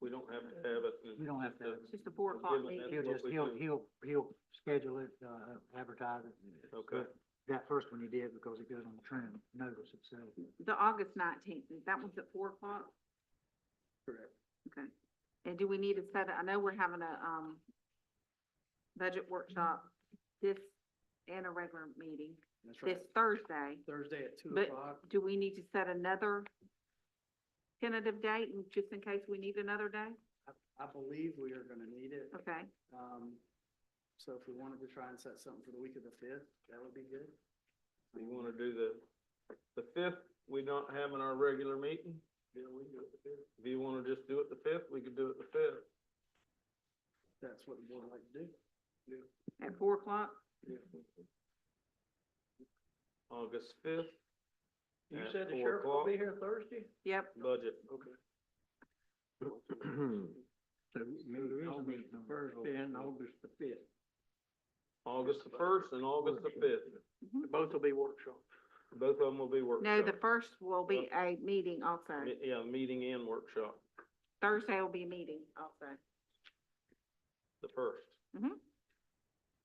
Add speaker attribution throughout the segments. Speaker 1: We don't have to have it.
Speaker 2: We don't have to have
Speaker 3: It's just a four o'clock meeting.
Speaker 1: That's
Speaker 2: He'll
Speaker 1: what
Speaker 2: just,
Speaker 1: we
Speaker 2: he'll,
Speaker 1: do.
Speaker 2: he'll, he'll schedule it, uh, advertise it.
Speaker 1: Okay.
Speaker 2: But That first one he did because it goes on the trend notice itself.
Speaker 3: The August nineteenth, that one's at four o'clock?
Speaker 2: Correct.
Speaker 3: Okay. And do we need to set, I know we're having a, um, budget workshop this and a regular meeting
Speaker 4: That's
Speaker 3: this
Speaker 4: right.
Speaker 3: Thursday.
Speaker 4: Thursday at two
Speaker 3: But-
Speaker 4: o'clock.
Speaker 3: Do we need to set another tentative date and just in case we need another day?
Speaker 4: I, I believe we are gonna need it.
Speaker 3: Okay,
Speaker 4: Um, so if we wanted to try and set something for the week of the fifth, that would be good.
Speaker 1: We wanna do the, the fifth, we don't have in our regular meeting.
Speaker 4: Yeah, we can do it the fifth.
Speaker 1: If you wanna just do it the fifth, we could do it the fifth.
Speaker 4: That's what we would like to do.
Speaker 3: at four o'clock?
Speaker 1: August fifth.
Speaker 4: You
Speaker 1: at
Speaker 4: said the
Speaker 1: four
Speaker 4: sheriff will
Speaker 1: o'clock.
Speaker 4: be here Thursday?
Speaker 3: Yep,
Speaker 1: Budget.
Speaker 4: Okay.
Speaker 2: So maybe August the first and August the fifth.
Speaker 1: August the first and August the fifth.
Speaker 4: Both will be workshops.
Speaker 1: Both of them will be workshops.
Speaker 3: no, the first will be a meeting also.
Speaker 1: Mi- Yeah, meeting and workshop,
Speaker 3: Thursday will be a meeting also.
Speaker 1: the first.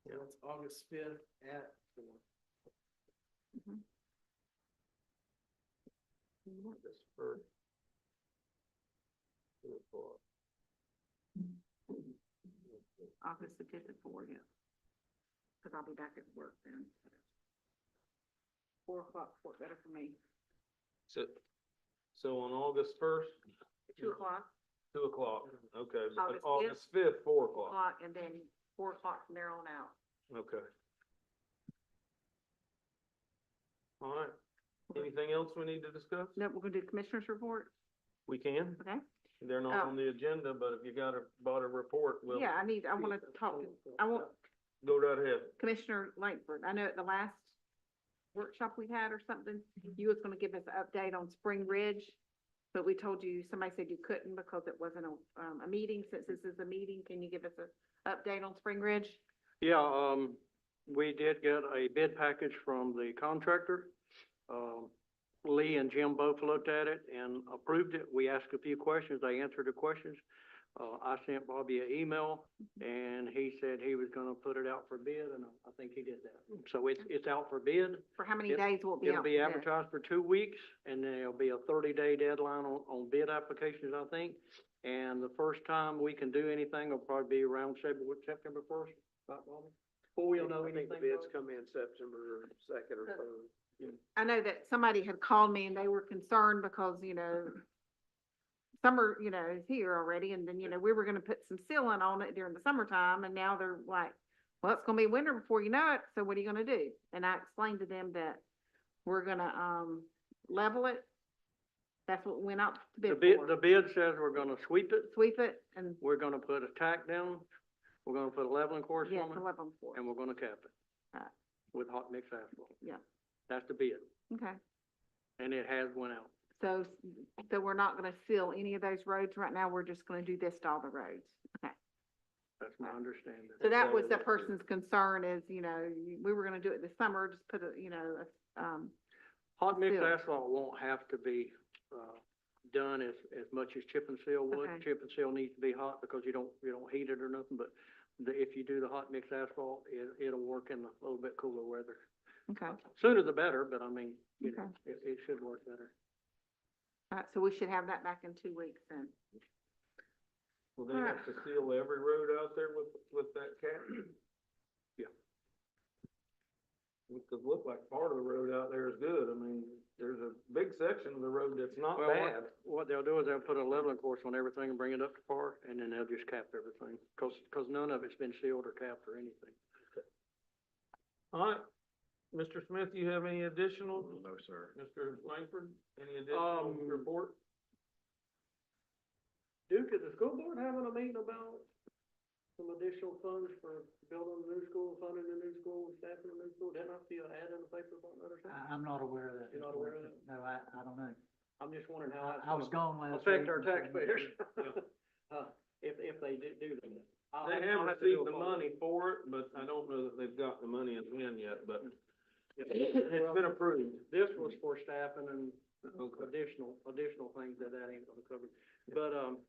Speaker 4: Yeah, it's August fifth at four.
Speaker 1: August first. Two o'clock.
Speaker 3: August the fifth at four, yeah. Cause I'll be back at work then. Four o'clock, work better for me.
Speaker 1: So, so on August first,
Speaker 3: Two o'clock,
Speaker 1: two o'clock, okay, but
Speaker 3: August fifth?
Speaker 1: August fifth, four o'clock,
Speaker 3: o'clock, and then four o'clock from there on out.
Speaker 1: okay. All right, anything else we need to discuss?
Speaker 3: No, we're gonna do commissioners report,
Speaker 1: We can,
Speaker 3: okay?
Speaker 1: they're not
Speaker 3: Oh.
Speaker 1: on the agenda, but if you got a, bought a report, we'll
Speaker 3: Yeah, I need, I wanna talk, to I want
Speaker 1: go right ahead.
Speaker 3: Commissioner Langford, I know at the last workshop we had or something, you was gonna give us an update on Spring Ridge. But we told you, somebody said you couldn't because it wasn't a, um, a meeting. Since this is a meeting, can you give us a update on Spring Ridge?
Speaker 5: Yeah, um, we did get a bid package from the contractor. Um, Lee and Jim both looked at it and approved it. We asked a few questions, they answered the questions. Uh, I sent Bobby an email and he said he was gonna put it out for bid and I think he did that. So it's, it's out for bid.
Speaker 3: For how many
Speaker 5: It-
Speaker 3: days will it be out?
Speaker 5: It'll be
Speaker 3: for bid?
Speaker 5: advertised for two weeks, and then it'll be a thirty-day deadline on, on bid applications, I think. And the first time we can do anything will probably be around September, September first, about Bobby. Before we'll know anything. Bobby?
Speaker 4: come in September second
Speaker 3: or
Speaker 4: third.
Speaker 3: I know that somebody had called me and they were concerned because, you know, summer, you know, is here already, and then, you know, we were gonna put some sealant on it during the summertime, and now they're like, well, it's gonna be winter before you know it, so what are you gonna do? And I explained to them that we're gonna, um, level it. That's what we went out to
Speaker 5: The
Speaker 3: bid
Speaker 5: bid, the
Speaker 3: for,
Speaker 5: bid says we're gonna sweep it,
Speaker 3: sweep it and,
Speaker 5: we're gonna put a tack down, we're gonna put a leveling course
Speaker 3: yeah,
Speaker 5: on
Speaker 3: to
Speaker 5: it,
Speaker 3: level them for.
Speaker 5: and we're gonna cap it
Speaker 3: Right.
Speaker 5: with hot mix asphalt.
Speaker 3: Yeah.
Speaker 5: That's the bid,
Speaker 3: Okay,
Speaker 5: and it has went out.
Speaker 3: so, so we're not gonna seal any of those roads right now, we're just gonna do this to all the roads.
Speaker 5: That's my understanding.
Speaker 3: So that
Speaker 1: Okay,
Speaker 3: was the
Speaker 1: that's good.
Speaker 3: person's concern is, you know, you- we were gonna do it this summer, just put a, you know, a, um,
Speaker 5: Hot mix
Speaker 3: Seal.
Speaker 5: asphalt won't have to be, uh, done as, as much as chip and seal would.
Speaker 3: Okay.
Speaker 5: Chip and seal needs to be hot because you don't, you don't heat it or nothing, but the, if you do the hot mix asphalt, it, it'll work in a little bit cooler weather.
Speaker 3: okay. All
Speaker 5: Sooner the better, but I mean, you know, it, it should work better.
Speaker 3: right, so we should have that back in two weeks then.
Speaker 1: Will they have to seal every road out there with, with that cap?
Speaker 5: Yeah.
Speaker 1: It could look like part of the road out there is good, I mean, there's a big section of the road that's not
Speaker 5: Well,
Speaker 1: bad.
Speaker 5: what, what they'll do is they'll put a leveling course on everything and bring it up to par, and then they'll just cap everything, cause, 'cause none of it's been sealed or capped or anything.
Speaker 1: All right, Mr. Smith, you have any additional,
Speaker 4: No, sir.
Speaker 1: Mr. Langford, any additional
Speaker 5: Um,
Speaker 1: report?
Speaker 5: Duke, is the school board having a meeting about some additional funds for building the new school, funding the new school, staffing the new school? Didn't I see an ad in the paper about another thing?
Speaker 2: I, I'm not aware of that.
Speaker 5: You're not aware of that?
Speaker 2: No, I, I don't know.
Speaker 5: I'm just wondering how that's
Speaker 2: I, I was
Speaker 5: gonna
Speaker 2: gone last week.
Speaker 5: affect our
Speaker 2: and so-
Speaker 5: taxpayers. Uh, if, if they do, do that. I'll
Speaker 1: They have
Speaker 5: I'll to do
Speaker 1: received
Speaker 5: a
Speaker 1: the
Speaker 5: follow-up.
Speaker 1: money for it, but I don't know that they've got the money in hand yet, but it's been approved.
Speaker 5: This was for staffing and
Speaker 1: Okay.
Speaker 5: additional, additional things that that ain't gonna cover. But, um,